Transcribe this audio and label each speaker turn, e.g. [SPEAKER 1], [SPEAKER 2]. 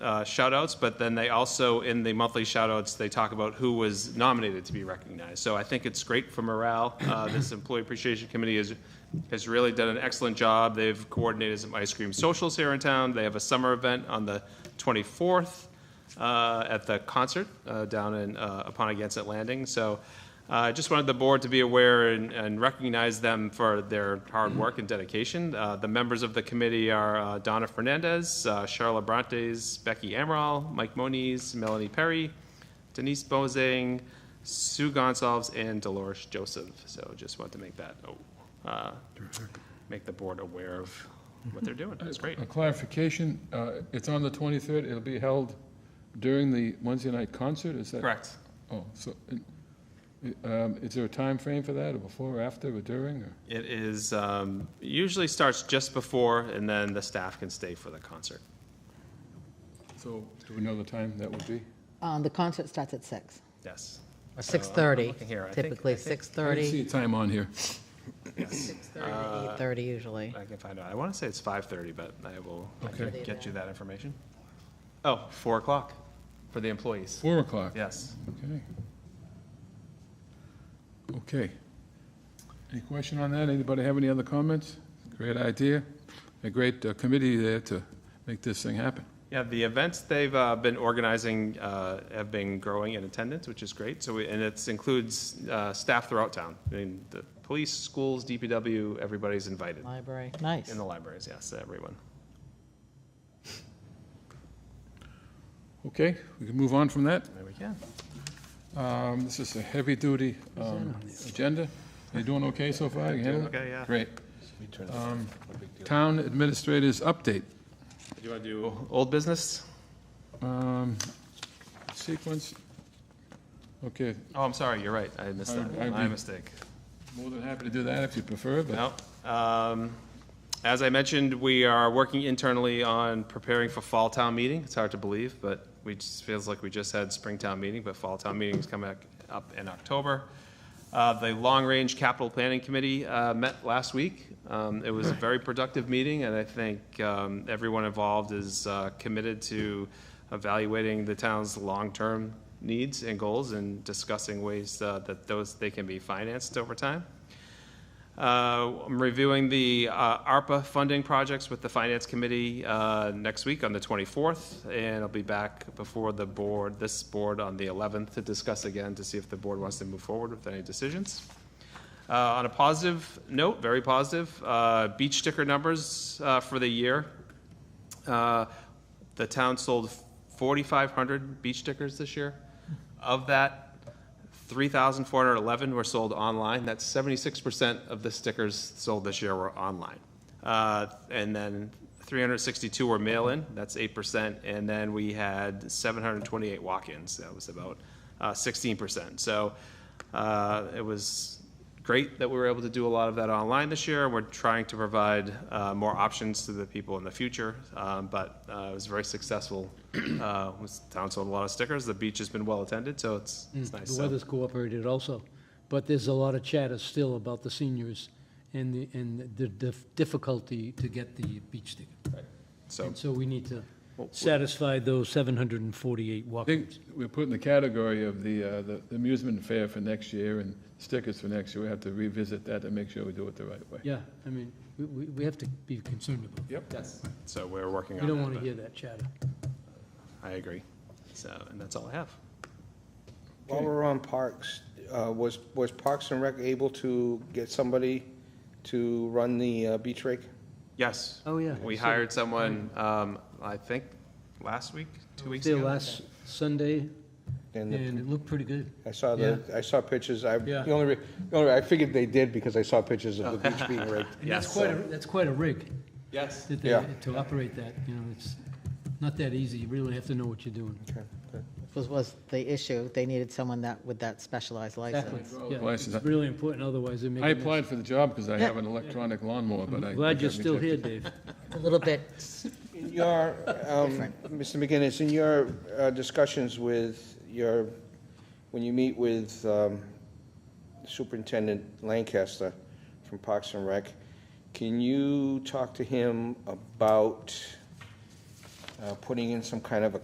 [SPEAKER 1] uh, shout outs, but then they also, in the monthly shout outs, they talk about who was nominated to be recognized. So I think it's great for morale. Uh, This Employee Appreciation Committee has, has really done an excellent job. They've coordinated some ice cream socials here in town. They have a summer event on the 24th uh, at the concert uh, down in, uh, upon Agansett Landing. So uh, I just wanted the board to be aware and- and recognize them for their hard work and dedication. Uh, The members of the committee are uh, Donna Fernandez, uh, Charla Brontes, Becky Amaral, Mike Moniz, Melanie Perry, Denise Bozing, Sue Gonsalves, and Dolores Joseph. So just wanted to make that, oh, uh, make the board aware of what they're doing. It's great.
[SPEAKER 2] A clarification, uh, it's on the 23rd, it'll be held during the Wednesday night concert, is that?
[SPEAKER 1] Correct.
[SPEAKER 2] Oh, so, uh, um, is there a time frame for that, or before, or after, or during, or?
[SPEAKER 1] It is, um, usually starts just before, and then the staff can stay for the concert.
[SPEAKER 2] So, do we know the time that would be?
[SPEAKER 3] Uh, The concert starts at six.
[SPEAKER 1] Yes. So, I'm- I'm
[SPEAKER 3] 6:30,
[SPEAKER 1] looking here. I think-
[SPEAKER 3] typically
[SPEAKER 1] I think
[SPEAKER 2] 30. I didn't see
[SPEAKER 3] 6:30,
[SPEAKER 2] a time on here.
[SPEAKER 3] 6:30 to 8:30 usually.
[SPEAKER 1] I can find out. I want to say it's 5:30, but I will I can
[SPEAKER 2] Okay.
[SPEAKER 1] get you that information. Oh, 4 o'clock for the employees.
[SPEAKER 2] 4 o'clock?
[SPEAKER 1] Yes.
[SPEAKER 2] Okay. Okay. Any question on that? Anybody have any other comments? Great idea. A great uh, committee there to make this thing happen.
[SPEAKER 1] Yeah, the events they've uh, been organizing uh, have been growing in attendance, which is great. So, we- and it includes uh, staff throughout town. I mean, the police, schools, DPW, everybody's invited.
[SPEAKER 3] Library, nice.
[SPEAKER 1] In the libraries, yes, everyone.
[SPEAKER 2] Okay, we can move on from that.
[SPEAKER 1] There we go.
[SPEAKER 2] Um, This is a heavy-duty um, agenda. You doing okay so far? You handling it?
[SPEAKER 1] okay, yeah.
[SPEAKER 2] Great. Um, Town administrators update.
[SPEAKER 1] Do you want to do old business?
[SPEAKER 2] Um, Sequence, okay,
[SPEAKER 1] Oh, I'm sorry, you're right. I missed
[SPEAKER 2] I-
[SPEAKER 1] that.
[SPEAKER 2] I
[SPEAKER 1] My
[SPEAKER 2] re-
[SPEAKER 1] mistake.
[SPEAKER 2] more than happy to do that if you prefer, but
[SPEAKER 1] No. Um, As I mentioned, we are working internally on preparing for fall town meeting. It's hard to believe, but we just, feels like we just had spring town meeting, but fall town meeting is coming up- up in October. Uh, The Long Range Capital Planning Committee uh, met last week. Um, It was a very productive meeting, and I think um, everyone involved is uh, committed to evaluating the town's long-term needs and goals and discussing ways uh, that those, they can be financed over time. Uh, I'm reviewing the uh, ARPA funding projects with the Finance Committee uh, next week on the 24th, and I'll be back before the board, this board, on the 11th to discuss again to see if the board wants to move forward with any decisions. Uh, On a positive note, very positive, uh, beach sticker numbers uh, for the year. Uh, The town sold 4,500 beach stickers this year. Of that, 3,411 were sold online. That's 76% of the stickers sold this year were online. Uh, And then 362 were mail-in, that's 8%. And then we had 728 walk-ins, that was about uh, 16%. So uh, it was great that we were able to do a lot of that online this year. We're trying to provide uh, more options to the people in the future, um, but uh, it was very successful. Uh, was- Town sold a lot of stickers, the beach has been well-attended, so it's it's nice.
[SPEAKER 4] Mm. The
[SPEAKER 1] So-
[SPEAKER 4] weather's cooperated also, but there's a lot of chatter still about the seniors and the, and the dif- difficulty to get the beach sticker.
[SPEAKER 1] So,
[SPEAKER 4] And so we need to satisfy those 748
[SPEAKER 2] I think
[SPEAKER 4] walk-ins.
[SPEAKER 2] we're put in the category of the, uh, the the amusement fair for next year and stickers for next year. We have to revisit that and make sure we do it the right way.
[SPEAKER 4] Yeah, I mean, we, we we have to be concerned about it.
[SPEAKER 2] Yep.
[SPEAKER 1] so we're working
[SPEAKER 4] We
[SPEAKER 1] on
[SPEAKER 4] don't
[SPEAKER 1] that,
[SPEAKER 4] want to
[SPEAKER 1] but
[SPEAKER 4] hear that chatter.
[SPEAKER 1] I agree. So, and that's all I have.
[SPEAKER 5] While we're on parks, uh, was, was Parks and Rec able to get somebody to run the uh, beach rake?
[SPEAKER 1] Yes.
[SPEAKER 4] Oh, yeah.
[SPEAKER 1] We
[SPEAKER 4] So-
[SPEAKER 1] hired someone, um, I think, last week, two weeks
[SPEAKER 4] There
[SPEAKER 1] ago.
[SPEAKER 4] last Sunday,
[SPEAKER 5] And
[SPEAKER 4] and
[SPEAKER 5] the-
[SPEAKER 4] it looked pretty good.
[SPEAKER 5] I saw the, I saw pictures, I,
[SPEAKER 4] Yeah.
[SPEAKER 5] the only, re- the only, I figured they did because I saw pictures of the beach being raked.
[SPEAKER 4] And that's
[SPEAKER 1] Yes.
[SPEAKER 4] quite, a that's quite a rig
[SPEAKER 1] Yes.
[SPEAKER 4] that they,
[SPEAKER 5] Yeah.
[SPEAKER 4] to operate that, you know, it's not that easy. You really have to know what you're doing.
[SPEAKER 5] Okay, good.
[SPEAKER 3] Was, was the issue, they needed someone that, with that specialized
[SPEAKER 4] Exactly.
[SPEAKER 3] license.
[SPEAKER 4] Yeah,
[SPEAKER 2] License.
[SPEAKER 4] It's really important, otherwise they make a
[SPEAKER 2] I
[SPEAKER 4] mess.
[SPEAKER 2] applied for the job because I have an electronic lawnmower, but I.
[SPEAKER 4] Glad
[SPEAKER 2] think
[SPEAKER 4] you're
[SPEAKER 2] I've
[SPEAKER 4] still
[SPEAKER 2] rejected.
[SPEAKER 4] here, Dave.
[SPEAKER 3] A little bit,
[SPEAKER 5] In your, um, Mr. McGinnis, in your uh, discussions with your, when you meet with um, Superintendent Lancaster from Parks and Rec, can you talk to him about uh, putting in some kind of a